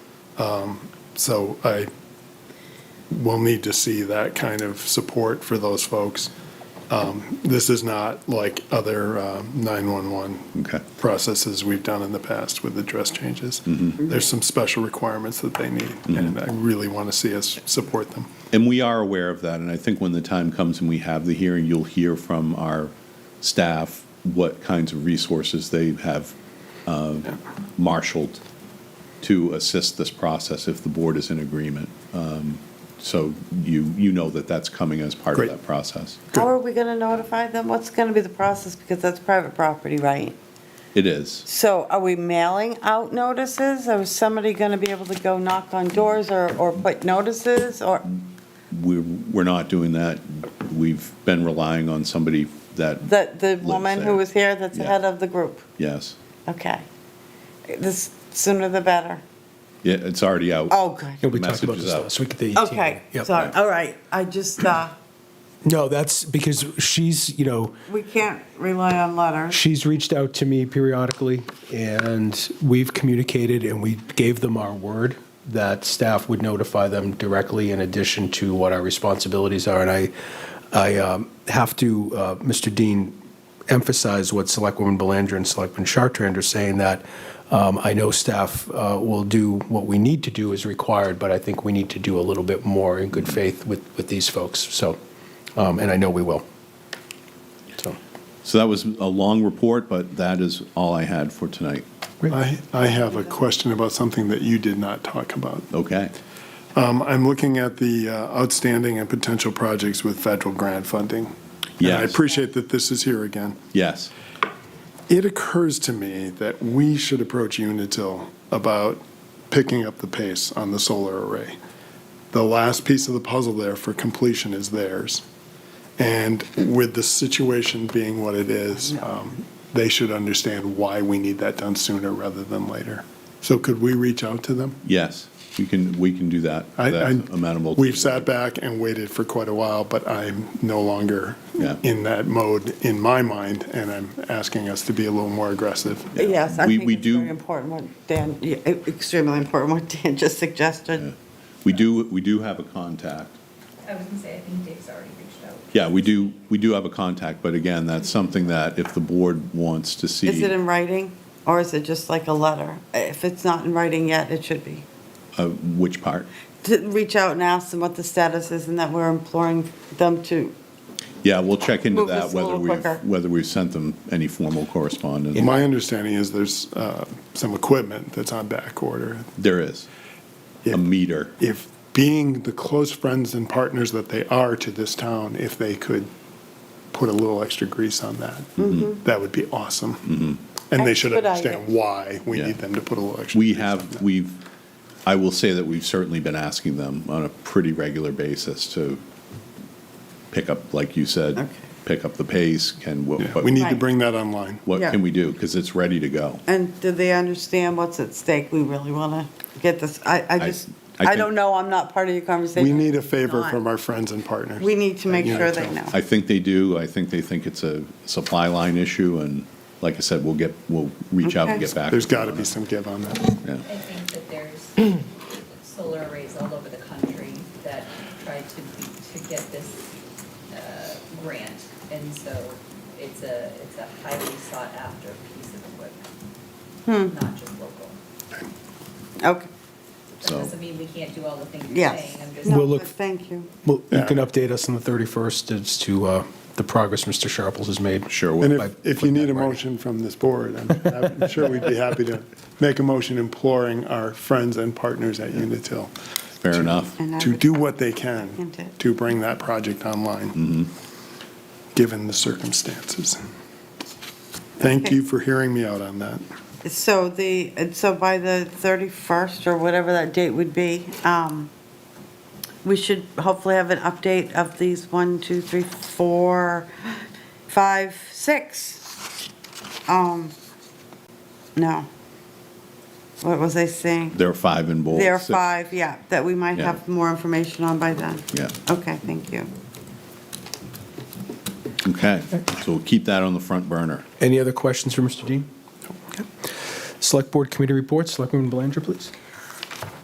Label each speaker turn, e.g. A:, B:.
A: So I will need to see that kind of support for those folks. Um, This is not like other uh, 911
B: Okay.
A: processes we've done in the past with address changes.
B: Mm-hmm.
A: There's some special requirements that they need, and I really want to see us support them.
B: And we are aware of that, and I think when the time comes and we have the hearing, you'll hear from our staff what kinds of resources they have uh, marshaled to assist this process if the board is in agreement. Um, So you, you know that that's coming as part of
A: Great.
B: that process.
A: Good.
C: How are we going to notify them? What's going to be the process? Because that's private property, right?
B: It is.
C: So are we mailing out notices? Or is somebody going to be able to go knock on doors or, or put notices or?
B: We're, we're not doing that. We've been relying on somebody that,
C: The, the woman who
B: there.
C: was here that's the
B: Yeah.
C: head of the group?
B: yes,
C: Okay. This, sooner the better.
B: Yeah, it's already out.
C: Oh, good.
D: Yeah, we talked about
B: Messages
D: this
B: out.
D: last week at the 18.
C: Okay,
D: Yep.
C: sorry, all right. I just, uh,
D: No, that's because she's, you know,
C: we can't rely on letters.
D: she's reached out to me periodically, and we've communicated, and we gave them our word that staff would notify them directly in addition to what our responsibilities are. And I, I um, have to, uh, Mr. Dean, emphasize what Selectwoman Belanger and Selectman Chartrand are saying, that um, I know staff uh, will do what we need to do as required, but I think we need to do a little bit more in good faith with, with these folks, so, um, and I know we will. So,
B: So that was a long report, but that is all I had for tonight.
A: I, I have a question about something that you did not talk about.
B: Okay.
A: Um, I'm looking at the uh, outstanding and potential projects with federal grant funding. And I
B: Yes.
A: appreciate that this is here again.
B: Yes.
A: It occurs to me that we should approach Unitil about picking up the pace on the solar array. The last piece of the puzzle there for completion is theirs. And with the situation being what it is, um, they should understand why we need that done sooner rather than later. So could we reach out to them?
B: Yes. We can we can do that.
A: I-
B: That's
A: I-
B: amenable. to-
A: We've sat back and waited for quite a while, but I'm no longer
B: Yeah.
A: in that mode in my mind, and I'm asking us to be a little more aggressive.
C: Yes, I
B: We-
C: think
B: we
C: it's
B: do-
C: very important what Dan, yeah, extremely important what Dan just suggested.
B: We do we do have a contact.
E: I was gonna say, I think Dave's already reached out.
B: Yeah, we do we do have a contact, but again, that's something that if the board wants to see,
C: Is it in writing or is it just like a letter? If it's not in writing yet, it should be.
B: uh, which part?
C: To reach out and ask them what the status is and that we're imploring them to,
B: Yeah, we'll check into
C: Move
B: that
C: this a
B: whether
C: little
B: we've
C: quicker.
B: whether we've sent them any formal correspondence.
A: My understanding is there's uh, some equipment that's on back order.
B: There is
A: Yeah.
B: a meter.
A: If being the close friends and partners that they are to this town, if they could put a little extra grease on that,
B: Mm-hmm.
A: that would be awesome. And they should
C: Expedite
A: understand why we
B: Yeah.
A: need them to put a little extra.
B: We
A: grease on that.
B: have we've I will say that we've certainly been asking them on a pretty regular basis to pick up, like you said,
C: Okay.
B: pick up the pace. Can what,
A: Yeah,
B: what-
A: We need to
C: Right.
A: bring that online.
B: what
C: Yeah.
B: can we do? Because it's ready to go.
C: and do they understand what's at stake? We really want to get this, I, I just,
B: I
C: I
B: think-
C: don't know, I'm not part of your conversation.
A: We need a favor
C: Not.
A: from our friends and partners.
C: We need to make
A: Yeah,
C: sure
A: so-
C: they know.
B: I think they do. I think they think it's a supply line issue, and like I said, we'll get, we'll reach out and
C: Okay.
B: get back.
A: There's
B: to them
A: got to
B: on
A: be
B: it.
A: some give on that.
B: Yeah.
E: I think that there's solar arrays all over the country that try to, be- to get this uh, grant. And so it's a, it's a highly sought after piece of equipment, not just local.
C: Okay,
E: That
B: So-
E: doesn't mean we can't do all the things you're
C: Yes.
E: saying. I'm just.
D: We'll look-
C: But thank you.
D: Well, you
A: Yeah.
D: can update us on the 31st as to uh, the progress Mr. Sharples has made.
B: Sure.
A: And
B: will.
D: By
A: if, if you
D: putting
A: need
D: that
A: a
D: in writing.
A: motion from this board, I'm I'm sure we'd be happy to make a motion imploring our friends and partners at Unitil
B: Fair enough.
C: And I
A: to
C: would-
A: do what they can
C: Second it.
A: to bring that project online, given the circumstances. Thank you for hearing me out on that.
C: So the, and so by the 31st or whatever that date would be, um, we should hopefully have an update of these one, two, three, four, five, six. Um, no. What was I saying?
B: There are five in bold.
C: There are
B: six-
C: five, yeah, that we might
B: Yeah.
C: have more information on by then.
B: Yeah.
C: Okay, thank you.
B: Okay, so we'll keep that on the front burner.
D: Any other questions for Mr. Dean? Okay. Select Board Committee reports, Selectwoman Belanger, please.